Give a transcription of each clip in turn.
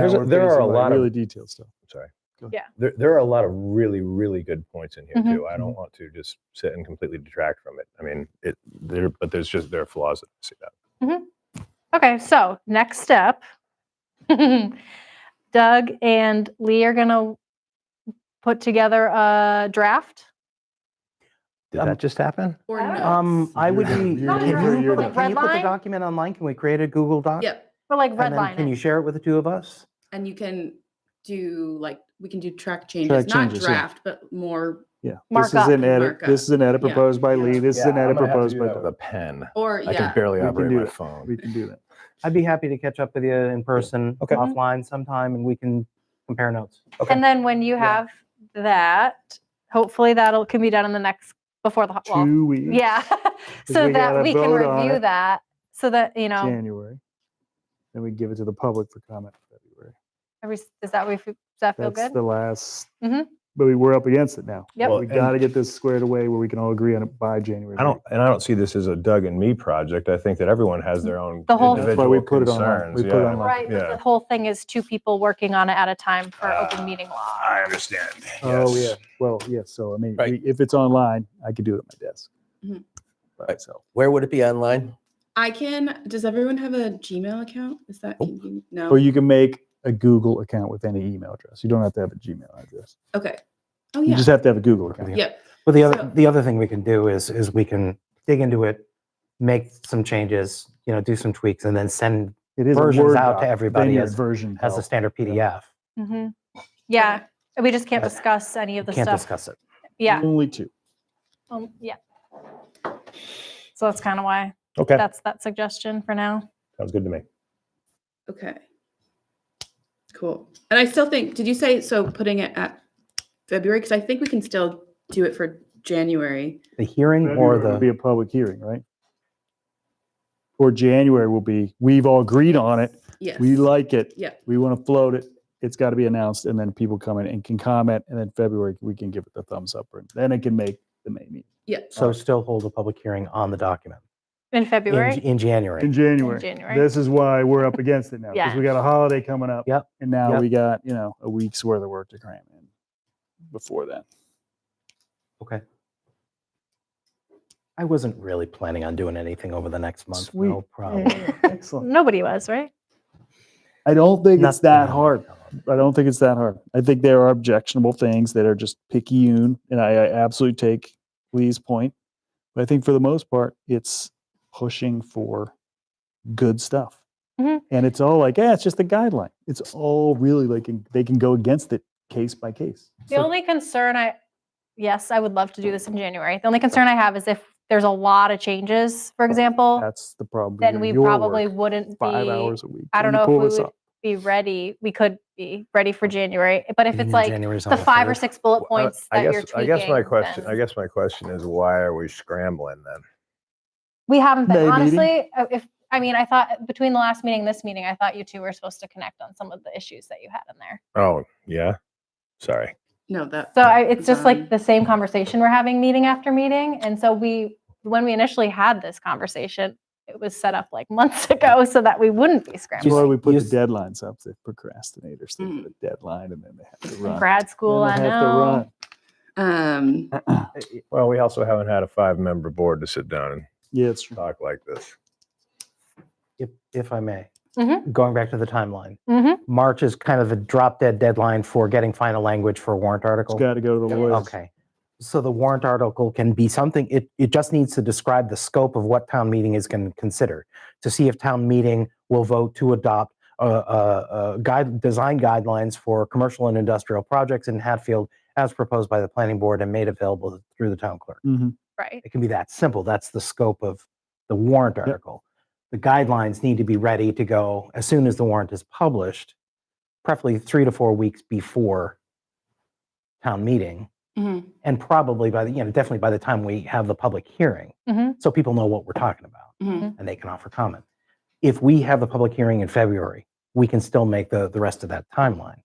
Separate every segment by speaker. Speaker 1: There's a-
Speaker 2: power
Speaker 1: there are a
Speaker 2: facing, like,
Speaker 1: lot of-
Speaker 2: really detailed stuff.
Speaker 1: sorry.
Speaker 2: Go ahead.
Speaker 3: Yeah.
Speaker 1: There, there are a lot of really, really good points in here
Speaker 3: Mhm.
Speaker 1: too. I don't want to just sit and completely detract from it. I mean, it there, but there's just there are flaws that I see that.
Speaker 3: Okay, so next step. Doug and Lee are gonna put together a draft.
Speaker 4: Did
Speaker 5: Um,
Speaker 4: that just happen?
Speaker 6: Or
Speaker 3: I don't
Speaker 6: no.
Speaker 5: Um, I would
Speaker 2: You're-
Speaker 5: be,
Speaker 2: you're-
Speaker 5: can
Speaker 3: you're-
Speaker 5: you,
Speaker 2: you're-
Speaker 5: put- can you put
Speaker 3: Redline?
Speaker 5: the document online? Can we create a Google
Speaker 2: uh,
Speaker 5: Doc?
Speaker 6: Yep.
Speaker 3: We're like
Speaker 5: And then can you
Speaker 3: redlining.
Speaker 5: share it with the two of us?
Speaker 6: And you can do like, we can do track changes,
Speaker 2: Track
Speaker 6: not
Speaker 2: changes, yeah.
Speaker 6: draft, but more,
Speaker 2: Yeah. This
Speaker 3: Markup.
Speaker 2: is an edit.
Speaker 6: Markup.
Speaker 2: This is an edit
Speaker 6: Yeah.
Speaker 2: proposed by Lee. This is an edit proposed by.
Speaker 1: with a pen.
Speaker 6: or
Speaker 1: I
Speaker 6: yeah.
Speaker 1: can barely
Speaker 2: We can
Speaker 1: operate
Speaker 2: do
Speaker 1: my
Speaker 2: it.
Speaker 1: phone.
Speaker 2: We can do that.
Speaker 5: I'd be happy to catch up with you in person,
Speaker 1: Okay.
Speaker 2: Mm-hmm.
Speaker 3: Mhm.
Speaker 5: offline sometime, and we can compare notes.
Speaker 3: And then when you
Speaker 5: Yeah.
Speaker 3: have that, hopefully that'll can be done in the next, before the, ho- well,
Speaker 2: Two weeks.
Speaker 3: yeah. So
Speaker 2: we
Speaker 3: that
Speaker 2: gotta
Speaker 3: we can
Speaker 2: vote on
Speaker 3: review
Speaker 2: it.
Speaker 3: that, so that, you know,
Speaker 2: January. Then we give it to the public for comment in February.
Speaker 3: every, is that, we f- does that feel
Speaker 2: That's
Speaker 3: good?
Speaker 2: the last.
Speaker 3: Mhm.
Speaker 2: But we were up against it now.
Speaker 3: Yep.
Speaker 1: Well,
Speaker 2: We
Speaker 1: and-
Speaker 2: got to get this squared away where we can all agree on it by January.
Speaker 1: I don't,
Speaker 2: meeting.
Speaker 1: and I don't see this as a Doug and me project. I think that everyone has their own
Speaker 3: Mm-hmm. The whole-
Speaker 2: That's why we
Speaker 1: individual
Speaker 2: put it online.
Speaker 1: concerns.
Speaker 2: We put it
Speaker 1: yeah.
Speaker 2: online.
Speaker 3: Right, but
Speaker 1: yeah.
Speaker 3: the whole thing is two people working on it at a time for open
Speaker 1: Uh,
Speaker 3: meeting law.
Speaker 1: I understand.
Speaker 2: Oh,
Speaker 1: yes.
Speaker 2: yeah. Well, yeah. So I mean,
Speaker 4: Right.
Speaker 2: we- if it's online, I could do it at my desk.
Speaker 6: Mhm.
Speaker 2: By
Speaker 4: Right.
Speaker 2: myself.
Speaker 4: Where would it be online?
Speaker 6: I can, does everyone have a Gmail account? Is that, convenient?
Speaker 2: Or
Speaker 6: no?
Speaker 2: you can make a Google account with any email address. You don't have to have a Gmail address.
Speaker 6: Okay. Oh,
Speaker 2: You
Speaker 6: yeah.
Speaker 2: just have to have a Google account.
Speaker 6: Yep.
Speaker 5: Well, the
Speaker 6: So-
Speaker 5: other, the other thing we can do is, is we can dig into it, make some changes, you know, do some tweaks, and then send
Speaker 2: It is a
Speaker 5: Versions
Speaker 2: Word
Speaker 5: out to
Speaker 2: doc, then
Speaker 5: everybody
Speaker 2: your
Speaker 5: as-
Speaker 2: version
Speaker 5: as a
Speaker 2: helps.
Speaker 5: standard PDF.
Speaker 3: hmm Yeah,
Speaker 6: Okay.
Speaker 3: and we just can't
Speaker 5: Yeah.
Speaker 3: discuss any of the
Speaker 5: Can't
Speaker 3: stuff.
Speaker 5: discuss it.
Speaker 3: Yeah,
Speaker 2: Only two.
Speaker 3: um, yeah. So that's kind of why,
Speaker 1: Okay,
Speaker 3: that's that suggestion for now.
Speaker 1: sounds good to me.
Speaker 6: Okay. Cool. And I still think, did you say, so putting it at February? Because I think we can still do it for January.
Speaker 5: The hearing or
Speaker 2: February will be
Speaker 5: the,
Speaker 2: a public hearing, right? Or January will be, we've all agreed on it,
Speaker 6: Yes.
Speaker 2: we like it,
Speaker 6: Yeah.
Speaker 2: we want to float it, it's got to be announced, and then people come in and can comment, and then February, we can give it the thumbs up, and then it can make the May meeting.
Speaker 6: Yeah.
Speaker 5: so still hold a public hearing on the document
Speaker 3: In
Speaker 5: in,
Speaker 3: February?
Speaker 5: in January.
Speaker 2: In January,
Speaker 3: January.
Speaker 2: this is why we're up against it now, because
Speaker 3: Yeah.
Speaker 2: we got a holiday coming up.
Speaker 5: Yep,
Speaker 2: And now
Speaker 5: yep.
Speaker 2: we got, you know, a week's worth of work to cram in before that.
Speaker 5: Okay. I wasn't really planning on doing anything over the next month.
Speaker 2: Sweet.
Speaker 5: No problem.
Speaker 2: Excellent.
Speaker 3: Nobody was, right?
Speaker 2: I don't think it's
Speaker 5: Nothing
Speaker 2: that
Speaker 5: on
Speaker 2: hard.
Speaker 5: the calendar.
Speaker 2: I don't think it's that hard. I think there are objectionable things that are just picayune, and I, I absolutely take Lee's point. But I think for the most part, it's pushing for good stuff,
Speaker 3: Mhm.
Speaker 2: and it's all like, yeah, it's just a guideline. It's all really like in- they can go against it case by case.
Speaker 3: The only concern I, yes, I would love to do this in January. The only concern I have is if there's a lot of changes, for example,
Speaker 2: That's the problem.
Speaker 3: then
Speaker 2: Your-
Speaker 3: we
Speaker 2: your
Speaker 3: probably
Speaker 2: work,
Speaker 3: wouldn't
Speaker 2: five
Speaker 3: be,
Speaker 2: hours a week.
Speaker 3: I
Speaker 2: Can
Speaker 3: don't
Speaker 2: you
Speaker 3: know if
Speaker 2: pull
Speaker 3: we
Speaker 2: this
Speaker 3: would
Speaker 2: off?
Speaker 3: be ready. We could be ready for January. But if
Speaker 5: Meeting
Speaker 3: it's
Speaker 5: in
Speaker 3: like
Speaker 5: January is on
Speaker 3: the five or
Speaker 5: third.
Speaker 3: six bullet
Speaker 1: Well, I-
Speaker 3: points
Speaker 1: I
Speaker 3: that you're
Speaker 1: guess- I guess my
Speaker 3: tweaking,
Speaker 1: question,
Speaker 3: then-
Speaker 1: I guess my question is why are we scrambling then?
Speaker 3: We haven't been
Speaker 2: May meeting?
Speaker 3: honestly. uh, If I mean, I thought between the last meeting and this meeting, I thought you two were supposed to connect on some of the issues that you had in there.
Speaker 1: Oh, yeah. Sorry.
Speaker 6: No, that.
Speaker 3: So
Speaker 6: that
Speaker 3: I, it's
Speaker 6: was
Speaker 3: just
Speaker 6: on-
Speaker 3: like the same conversation we're having meeting after meeting, and so we, when we initially had this conversation, it was set up like months ago so that we wouldn't be
Speaker 2: That's
Speaker 5: You
Speaker 2: why
Speaker 3: scrambling.
Speaker 5: s-
Speaker 2: we put
Speaker 5: you
Speaker 2: the
Speaker 5: s-
Speaker 2: deadlines up. The procrastinators they get a deadline, and then they have to run.
Speaker 3: Grad school, Mm. I
Speaker 2: Then they have to
Speaker 3: know.
Speaker 2: run.
Speaker 6: Um,
Speaker 1: Well, we also haven't had a five-member board to sit down and
Speaker 2: Yeah, it's true.
Speaker 1: talk like this.
Speaker 5: If, if I may,
Speaker 3: Mhm.
Speaker 5: going back to the timeline,
Speaker 3: hmm
Speaker 5: March is kind of the drop dead deadline for getting final language for a warrant
Speaker 2: It's
Speaker 5: article.
Speaker 2: got to go to the lawyers.
Speaker 5: Okay. So the warrant article can be something, it, it just needs to describe the scope of what town meeting is going to consider to see if town meeting will vote to adopt uh, uh, uh, guide, design guidelines for commercial and industrial projects in Hatfield as proposed by the planning board and made available through the town clerk.
Speaker 2: Mhm.
Speaker 3: Right.
Speaker 5: It can be that simple. That's the scope of the warrant article. The guidelines need to be ready to go as soon as the warrant is published, preferably three to four weeks before town meeting
Speaker 3: Mm-hmm.
Speaker 6: mhm.
Speaker 5: and probably by the you know definitely by the time we have the public hearing
Speaker 3: Mhm.
Speaker 5: so people know what we're talking about
Speaker 3: Mm-hmm.
Speaker 6: Mhm.
Speaker 5: and they can offer comment if we have the public hearing in february we can still make the the rest of that timeline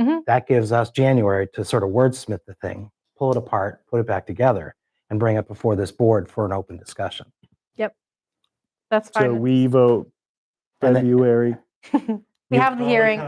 Speaker 3: Mhm.
Speaker 5: that gives us january to sort of wordsmith the thing pull it apart put it back together and bring it before this board for an open discussion
Speaker 3: That's
Speaker 2: So
Speaker 3: fine.
Speaker 2: we vote
Speaker 5: And then-
Speaker 2: February.
Speaker 3: We have the hearing.